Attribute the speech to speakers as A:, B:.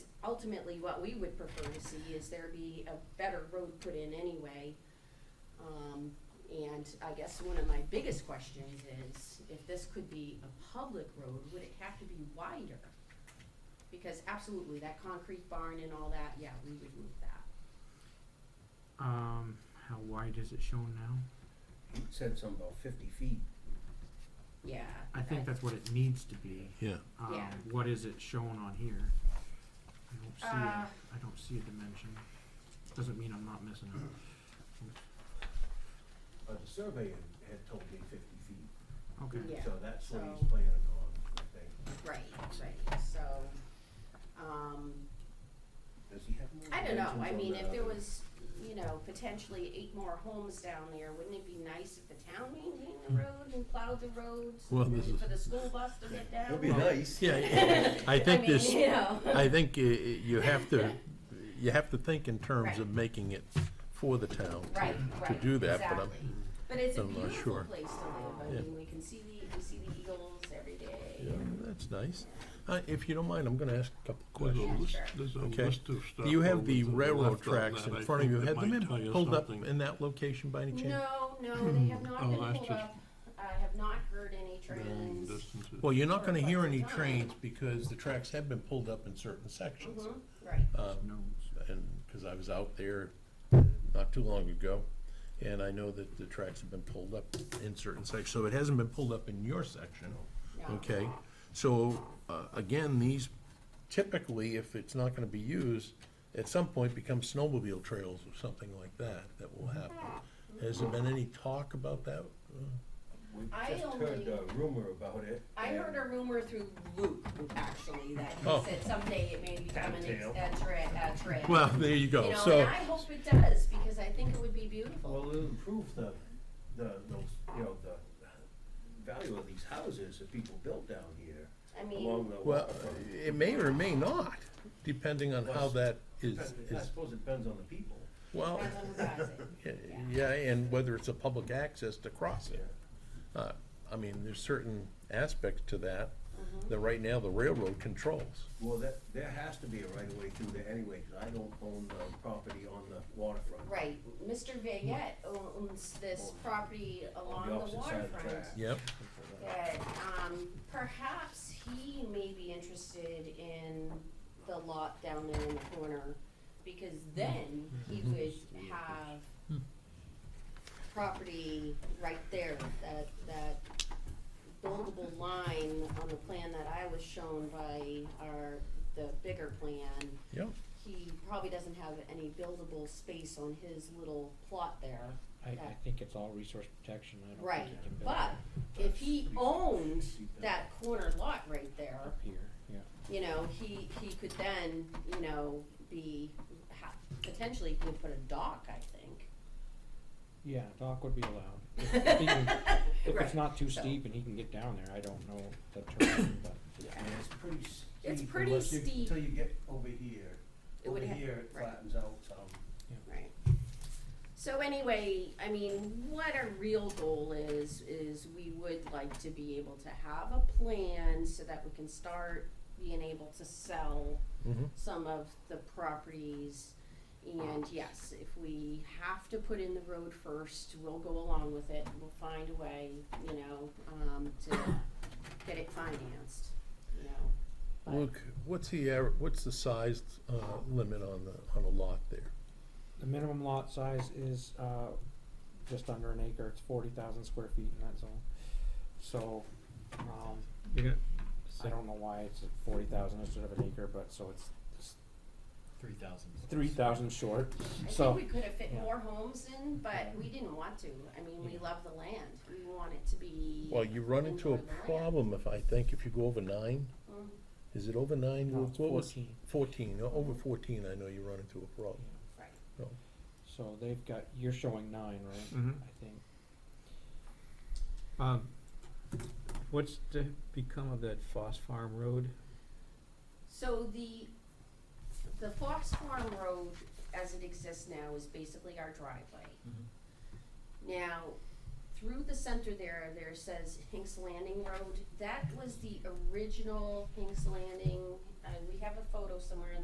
A: ultimately, what we would prefer to see is there be a better road put in anyway. Um, and I guess one of my biggest questions is, if this could be a public road, would it have to be wider? Because absolutely, that concrete barn and all that, yeah, we would move that.
B: Um, how wide is it shown now?
C: You said something about fifty feet.
A: Yeah.
B: I think that's what it needs to be.
D: Yeah.
B: Um,
A: Yeah.
B: what is it shown on here? I don't see
A: Uh.
B: a, I don't see a dimension. Doesn't mean I'm not missing it.
E: Uh, the surveyor had told me fifty feet,
B: Okay.
A: Yeah.
E: so that's what
A: so-
E: he's planning on, I think.
A: Right, right, so, um,
E: Does he have more?
A: I don't know, I
E: dimensions on
A: mean,
E: that
A: if there
E: other-
A: was, you know, potentially eight more homes down there, wouldn't it be nice if the town maintained the road and plowed the roads?
D: Hmm. Well,
A: and
D: this is-
A: For the school bus to get down?
C: It'd be nice.
D: Yeah, I think
A: mean,
D: this,
A: you know.
D: I think you, you have to, you have to think in terms of
A: Right.
D: making it for the town. to-
A: Right,
D: To
A: right,
D: do that, but I'm,
A: exactly. But it's a
D: I'm not
A: beautiful
D: sure.
A: place to live, I
D: Yeah.
A: mean, we can see the, we see the eagles every day.
D: yeah, that's nice. Uh, if you don't mind, I'm gonna ask a couple
F: There's a
D: questions.
F: list,
A: Sure.
F: there's a
D: Okay.
F: list of stuff.
D: Do you have
F: over
D: the
F: to
D: railroad
F: left on
D: tracks
F: that.
D: in
F: I
D: front of
F: think
D: you?
F: that
D: Had them
F: might
D: in-
F: tell you
D: pulled up
F: something.
D: in that location by any chance?
A: No, no,
D: Hmm.
A: they have not
F: Oh,
A: been
F: that's
A: pulled
F: just-
A: up, I have not heard any
F: Varying
A: trains.
F: distances.
D: Well, you're not
A: Sure,
D: gonna hear
A: but
D: any
A: it's not.
D: trains because the tracks have been pulled up in certain sections.
A: Mhm, right,
D: Um,
B: No.
D: and, because I was out there not too long ago, and I know that the tracks have been pulled up in certain sections, so it hasn't been pulled up in your section,
A: yeah.
D: okay? So, uh, again, these typically, if it's not gonna be used, at some point become snowmobile trails or something like that, that will happen. Has there been any talk about that?
E: We
A: I
E: just heard
A: only-
E: a rumor about it.
A: I
E: and
A: heard a rumor through Luke, actually, that
D: Oh.
A: he said someday it may become an, ex-
E: Cocktail.
A: a tra- a trail.
D: Well, there you
A: You
D: go,
A: know,
D: so,
A: and I hope it does, because I think it would be beautiful.
E: Well, it'll improve the, the, those, you know, the value of these houses that people built down here
A: I mean,
E: along the
D: well, uh,
E: waterfront.
D: it may or may not, depending on how that is,
E: Depends- I
D: is,
E: suppose it depends on the people.
D: well.
A: depends on who buys it.
D: Yeah, Yeah, and whether it's a public access to cross it.
E: Yeah.
D: Uh, I mean, there's certain aspects to that that right now the railroad controls.
E: Well, that, there has to be a right of way through there anyway, because I don't own the property on the waterfront.
A: Right, Mr. Vayette owns this property
E: On
A: along
E: the
A: the
E: opposite side of the
A: waterfront.
E: track.
D: Yep.
A: That, um, perhaps he may be interested in the lot down there in the corner, because then he would have property right there, that, that buildable line on the plan that I was shown by our, the bigger plan.
D: Yep.
A: He probably doesn't have any buildable space on his little plot there.
G: I, I think it's all resource protection, I don't
A: Right,
G: think you can build
A: but
G: it
A: if he owned that corner lot right there,
G: up here, yeah.
A: you know, he, he could then, you know, be, ha- potentially he could put a dock, I think.
G: Yeah, dock would be allowed, if, if he can- if
A: Right,
G: it's not too
A: so-
G: steep and he can get down there, I don't know the terrain, but.
A: Yeah,
E: And it's pretty steep.
A: It's pretty
E: unless you-
A: steep.
E: Till you get over here.
A: It would
E: Over
A: ha-
E: here, it
A: right.
E: flattens out some.
A: right. So anyway, I mean, what our real goal is, is we would like to be able to have a plan so that we can start being able to sell
D: Mhm.
A: some of the properties. And yes, if we have to put in the road first, we'll go along with it, we'll find a way, you know, um, to get it financed, you know. But
D: Look, what's the, aver- what's the size uh, limit on the, on a lot there?
G: The minimum lot size is, uh, just under an acre, it's forty thousand square feet in that zone, so, um,
B: You're gonna,
G: I don't know why it's forty thousand instead of an acre, but so it's, it's
H: Three thousand.
G: three thousand short,
A: I
G: so.
A: think we could have fit
G: yeah.
A: more homes in, but we didn't want to, I mean, we love the land, we want it to be.
D: Well, you run into a
A: Enjoy the land.
D: problem if, I think, if you go over nine.
A: Mhm.
D: Is it over nine?
G: No, it's
D: What was-
G: 14.
D: Fourteen, o- over fourteen, I know you run into a problem.
A: Right,
G: So they've got, you're showing nine, right?
B: Mhm.
G: I think.
F: Mm-hmm. Um, what's to become of that Foss Farm Road?
A: so the, the Fox Farm Road as it exists now is basically our driveway.
H: Mm-hmm.
A: Now, through the center there, there says Hinks Landing Road. That was the original Hinks Landing. Uh, we have a photo somewhere in